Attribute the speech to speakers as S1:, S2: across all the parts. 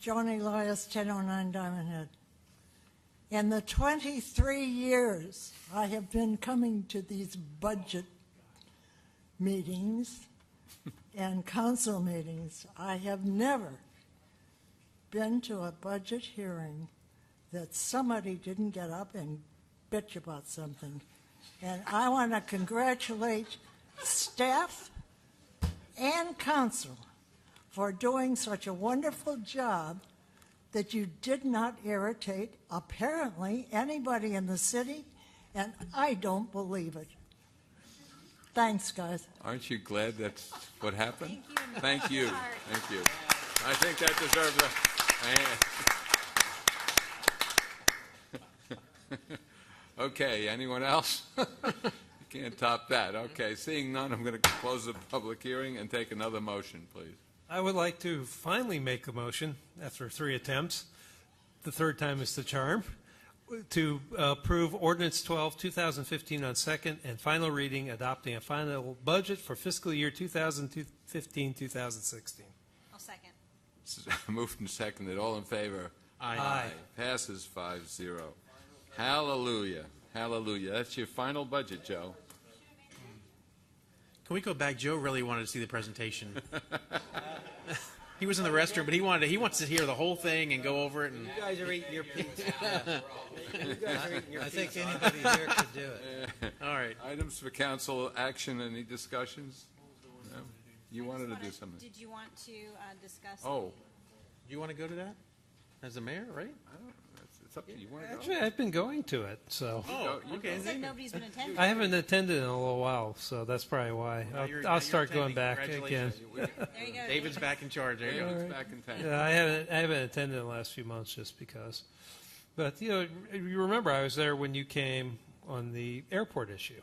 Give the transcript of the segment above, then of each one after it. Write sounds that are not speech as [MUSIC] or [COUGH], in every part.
S1: Johnny Elias, 1009 Diamond Head. In the 23 years I have been coming to these budget meetings and council meetings, I have never been to a budget hearing that somebody didn't get up and bitch about something. And I want to congratulate staff and council for doing such a wonderful job that you did not irritate, apparently, anybody in the city, and I don't believe it. Thanks, guys.
S2: Aren't you glad that's what happened?
S3: Thank
S2: Thank you.
S3: you.
S2: Thank you. I think that deserves a a hand. [LAUGHS] Okay, anyone else? [LAUGHS] Can't top that. Okay, seeing none, I'm going to close the public hearing and take another motion, please.
S4: I would like to finally make a motion after three attempts. The third time is the charm. To uh, approve ordinance 12, 2015 on second and final reading, adopting a final budget for fiscal year 2015, 2016.
S3: I'll second.
S2: [LAUGHS] Moved and seconded, all in favor?
S4: Aye.
S2: Passes five zero. Hallelujah, hallelujah. That's your final budget, Joe.
S5: Can we go back? Joe really wanted to see the presentation. [LAUGHS] he was in the restroom, but he wanted to, he wants to hear the whole thing and go over it. And
S6: You guys are eating your peas.
S5: [LAUGHS]
S6: You guys are eating your peas. I think anybody here could do it.
S5: [LAUGHS] all right,
S2: Items for council action, any discussions? No? You wanted to do something.
S3: Did you want to uh, discuss?
S2: Oh,
S5: you want to go to that as the mayor, right?
S2: I don't, it's- it's up to you. You want to
S4: Actually,
S2: go?
S4: I've been going to it, so.
S5: Oh,
S2: go- you
S5: okay.
S3: You said nobody's been attending.
S4: I haven't attended in a little while, so that's probably why.
S5: Now you're-
S4: I'll,
S5: now
S4: I'll
S5: you're
S4: start going
S5: attending.
S4: back again.
S5: Congratulations.
S3: There you go.
S5: David's back in charge. There you go.
S2: David's back in town.
S4: Yeah, I haven't, I haven't attended in the last few months just because. But, you know, you remember I was there when you came on the airport issue.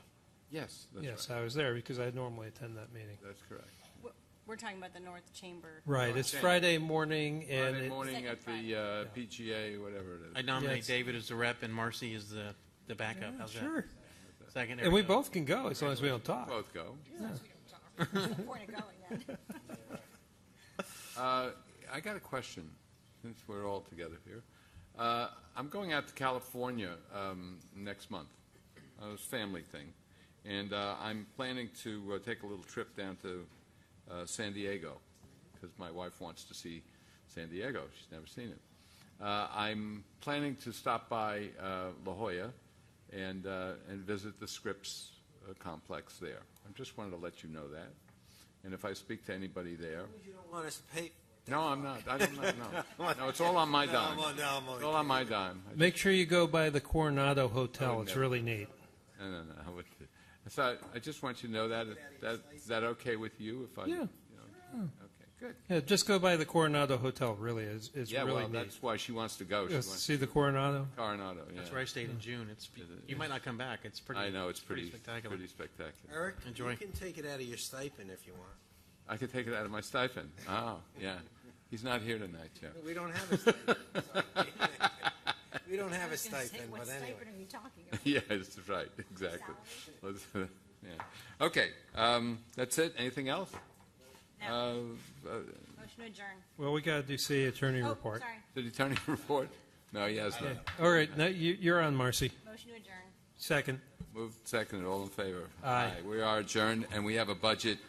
S2: Yes, that's
S4: Yes,
S2: right.
S4: I was there because I normally attend that meeting.
S2: That's correct.
S3: We're- We're talking about the North Chamber.
S4: [LAUGHS] Right, it's Friday morning and
S2: Friday
S4: it-
S2: morning
S3: Second
S2: at the uh, PGA, whatever it
S5: I
S2: is.
S5: nominate
S4: Yes.
S5: David as the rep and Marcy as the, the backup. How's that?
S4: sure.
S5: Second. there
S4: And we
S5: go.
S4: both can go as long as we don't talk.
S2: Both go.
S3: We're going [LAUGHS] then.
S2: Uh, I got a question, since we're all together here. Uh, I'm going out to California um, next month, a family thing, and uh, I'm planning to uh, take a little trip down to uh, San Diego, because my wife wants to see San Diego, she's never seen it. Uh, I'm planning to stop by uh, La Jolla and, uh, and visit the Scripps uh, complex there. I just wanted to let you know that, and if I speak to anybody there,
S6: You don't want us to pay.
S2: no, I'm not. I don't know.
S6: [LAUGHS]
S2: No, no it's all on my
S6: No,
S2: dime.
S6: I'm on- no, I'm on-
S2: It's all on my dime.
S6: [LAUGHS]
S2: I-
S4: Make sure you go by the Coronado Hotel. It's
S2: never.
S4: really neat.
S2: No, no, no. I would- So I- I just want you to know that. that is that okay with you if I?
S4: Yeah.
S2: you know? Okay, good.
S4: Yeah, just go by the Coronado Hotel, really. It's, it's
S2: Yeah,
S4: really
S2: well,
S4: neat.
S2: that's why she wants to go. She
S4: Just
S2: wants
S4: see the Coronado?
S2: Coronado, yeah.
S5: That's where I stayed in June. It's you might not come back. It's pretty.
S2: I know, it's pretty,
S5: spectacular.
S2: pretty spectacular.
S6: Eric,
S5: Enjoy.
S6: you can take it out of your stipend if you want.
S2: I could take it out of my stipend. Oh, yeah. He's not here tonight, Joe. [LAUGHS]
S6: We don't [LAUGHS] have a stipend. [LAUGHS] We don't have a
S3: I was gonna say,
S6: stipend,
S3: What
S6: but anyway.
S3: stipend are you talking about?
S2: Yeah, that's right, exactly. Let's- [LAUGHS] yeah. Okay, um, that's it. Anything else?
S3: No,
S2: Uh, uh,
S3: motion to adjourn.
S4: Well, we got to do city attorney
S3: Oh,
S4: report.
S3: sorry,
S2: Did he turn your [LAUGHS] report? No, he has not.
S4: All right, now you, you're on, Marcy.
S3: motion to adjourn.
S4: Second.
S2: Moved, seconded, all in favor?
S4: Aye.
S2: We are adjourned, and we have a budget